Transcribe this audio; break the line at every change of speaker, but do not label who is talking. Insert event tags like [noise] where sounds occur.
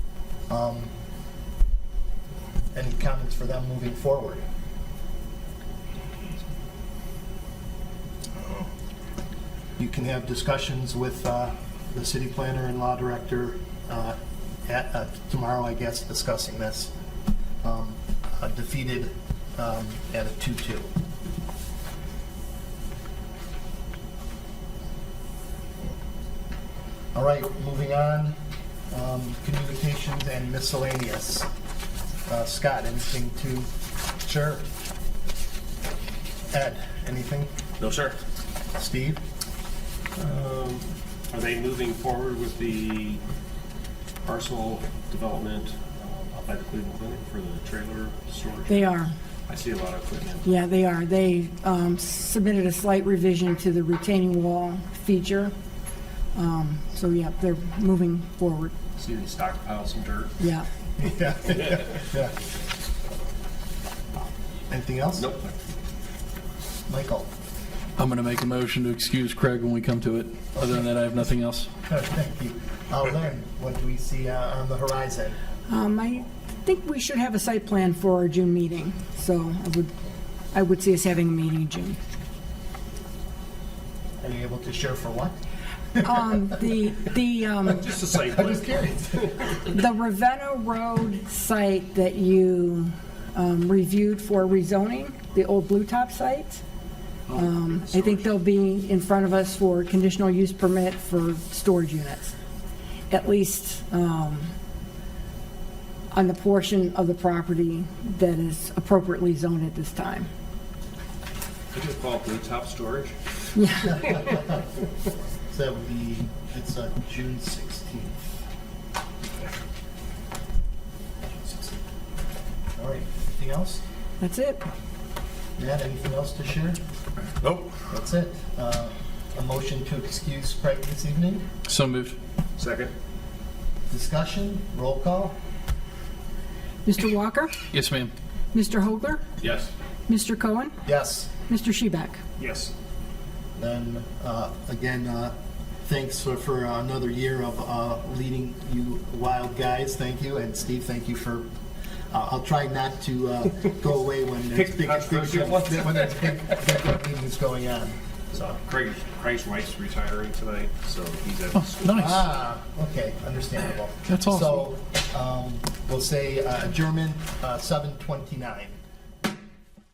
Um, Any comments for them moving forward? You can have discussions with uh, the city planner and law director uh, at- uh, tomorrow, I guess, discussing this. Um, uh, Defeated um, at a 2-2. All right, moving on, um, communications and miscellaneous. Uh, Scott, anything to? Sure. Ed, anything?
No, sir.
Steve?
Um, Are they moving forward with the parcel development um, up by the Cleveland Clinic for the trailer storage?
They are,
I see a lot of equipment.
yeah, they are. They um, submitted a slight revision to the retaining wall feature. Um, So, yeah, they're moving forward,
See they stockpile some dirt?
yeah.
Yeah. Yeah. Anything else?
Nope.
Michael?
I'm going to make a motion to excuse Craig when we come to it. Other than that, I have nothing else.
Oh, Thank you. Uh, Lynn, what do we see uh, on the horizon?
Um, I think we should have a site plan for our June meeting, so I would, I would see us having a meeting in June.
Are you able to share for what?
Um, The, the, um,
Just a [laughs] site
I'm
plan.
just curious.
the Ravenna Road site that you um, reviewed for rezoning, the old Blue Top site, um, I think they'll be in front of us for conditional use permit for storage units, at least um, on the portion of the property that is appropriately zoned at this time.
Could you call it blue top storage?
So that would be, it's uh, June 16th. All right, anything else?
That's it.
Matt, anything else to share?
Nope.
That's it. Uh, A motion to excuse Craig this evening?
So moved.
Second?
Discussion, roll call?
Mr. Walker,
Yes, ma'am.
Mr. Hogler,
Yes.
Mr. Cohen,
Yes.
Mr. Shebeck.
Yes.
Then, uh, again, uh, thanks for- for another year of uh, leading you wild guys. Thank you. And Steve, thank you for, uh, I'll try not to uh, go away when there's
Pick
big,
controversy
big-
at once.
[laughs] when there's big big meetings going on.
So Craig, Craig's wife's retiring tonight, so he's at school.
Nice.
Ah, okay, understandable.
That's awesome.
So um, we'll say uh, German uh, 729.